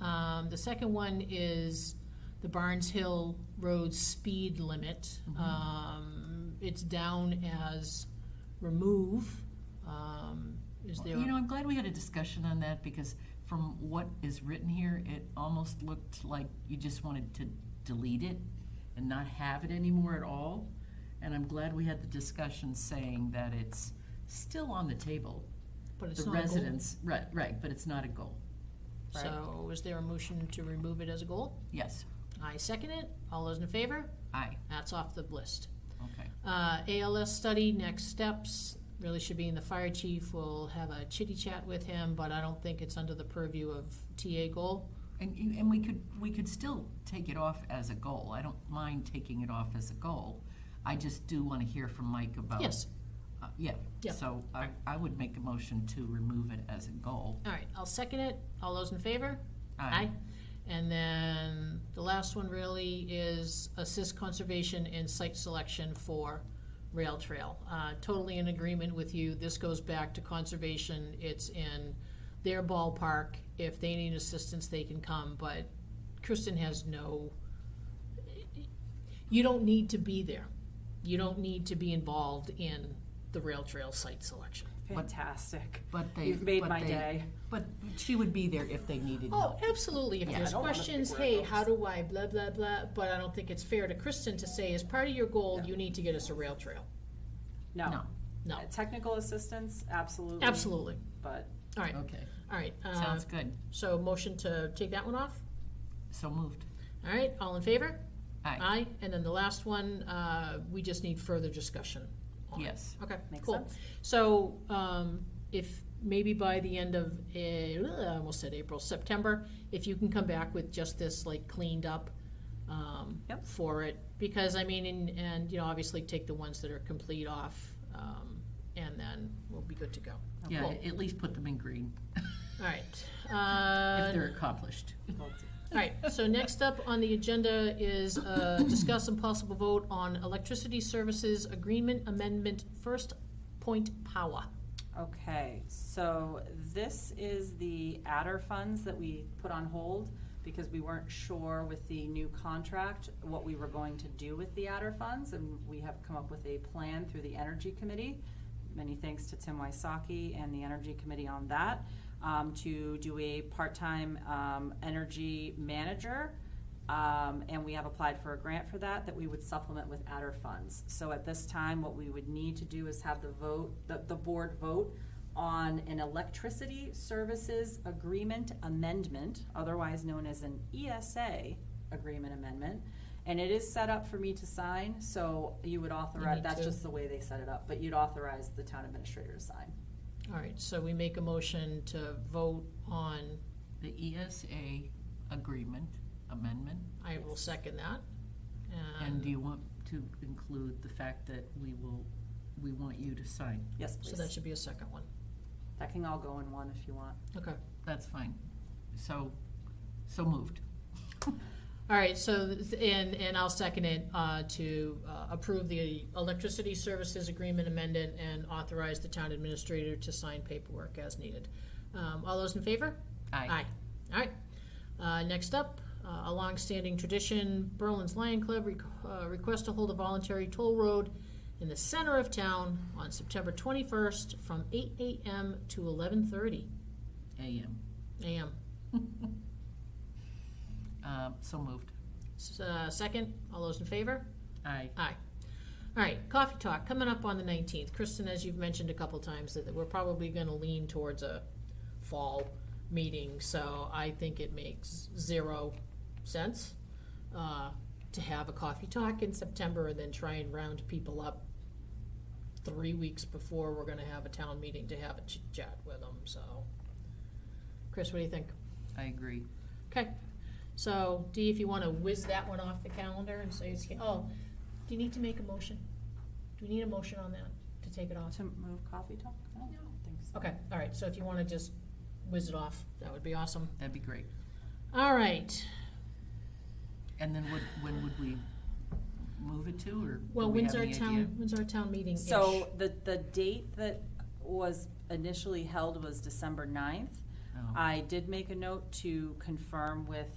Um, The second one is the Barnes Hill Road speed limit. Mm-hmm. Um, It's down as remove. Um, Is there? You know, I'm glad we had a discussion on that because from what is written here, it almost looked like you just wanted to delete it and not have it anymore at all. And I'm glad we had the discussion saying that it's still on the table. but it's The not a goal. residents, right, right, but it's not a goal. right. So is there a motion to remove it as a goal? Yes, I second it. All those in favor? aye, That's off the list. okay. Uh, ALS study, next steps, really should be in the fire chief, we'll have a chitty chat with him, but I don't think it's under the purview of TA goal. And, you- and we could, we could still take it off as a goal. I don't mind taking it off as a goal. I just do want to hear from Mike about. Yes, Uh, Yeah, Yeah. so I, I would make a motion to remove it as a goal. Um, all right, I'll second it, all those in favor? Aye. And then the last one really is assist conservation and site selection for rail trail. Uh, totally in agreement with you, this goes back to conservation, it's in their ballpark, if they need assistance, they can come, but Kristen has no, you don't need to be there. You don't need to be involved in the rail trail site selection. Fantastic. But they. You've made but my they- day. But she would be there if they needed Oh, help. absolutely. If Yeah, I there's don't wanna questions, pick where it hey, goes. how do I blah, blah, blah, but I don't think it's fair to Kristen to say, as part of your goal, No. you need to get us a rail trail. No. No, Uh, Technical assistance, absolutely. absolutely. But All right, Okay, all right. uh, sounds good. So motion to take that one off? So moved. All right, all in favor? Aye, Aye. And then the last one, uh, we just need further discussion on. yes. Okay, Makes cool. sense. So, um, if, maybe by the end of, eh, I almost said April, September, if you can come back with just this, like, cleaned up, um, Yep. for it, because, I mean, and, and, you know, obviously take the ones that are complete off, um, and then we'll be good to go. Yeah, Cool. at least put them in green All right, uh. if they're accomplished. All right, so next up on the agenda is uh, discuss and possible vote on electricity services agreement amendment, first point power. Okay, so this is the adder funds that we put on hold because we weren't sure with the new contract what we were going to do with the adder funds, and we have come up with a plan through the Energy Committee. Many thanks to Tim Wysocki and the Energy Committee on that, um, to do a part-time, um, energy manager. Um, and we have applied for a grant for that, that we would supplement with adder funds. So at this time, what we would need to do is have the vote, the, the board vote on an electricity services agreement amendment, otherwise known as an ESA agreement amendment. And it is set up for me to sign, so you would authorize, need that's to. just the way they set it up, but you'd authorize the town administrator to sign. All right, so we make a motion to vote on, The ESA agreement amendment. I will second that. Uh, And do you want to include the fact that we will, we want you to sign? Yes, So that please. should be a second one. That can all go in one if you want. Okay. That's fine. So, so moved. All right, so, th- and, and I'll second it uh, to uh, approve the electricity services agreement amendment and authorize the town administrator to sign paperwork as needed. Um, All those in favor? Aye. All right. Uh, next up, uh, a longstanding tradition, Berlin's Lion Club requ uh, request to hold a voluntary toll road in the center of town on September 21st from 8 a.m. to 11:30 AM. a.m. Um, So moved. S- uh, second, all those in favor? Aye. Aye. All right, coffee talk coming up on the 19th. Kristen, as you've mentioned a couple times, that that we're probably going to lean towards a fall meeting, so I think it makes zero sense uh, to have a coffee talk in September and then try and round people up three weeks before we're going to have a town meeting to have a chit chat with them. So, Chris, what do you think? I agree. Okay, so Dee, if you wanna whiz that one off the calendar and say it's, oh, do you need to make a motion? Do we need a motion on that to take it off? To move coffee talk? I don't think so. Okay, all right, so if you wanna just whiz it off, that would be awesome. That'd be great. All right, And then would, when would we move it to, or? do well, we when's have our any idea? town, when's our town meeting ish? So the, the date that was initially held was December ninth. Oh. I did make a note to confirm with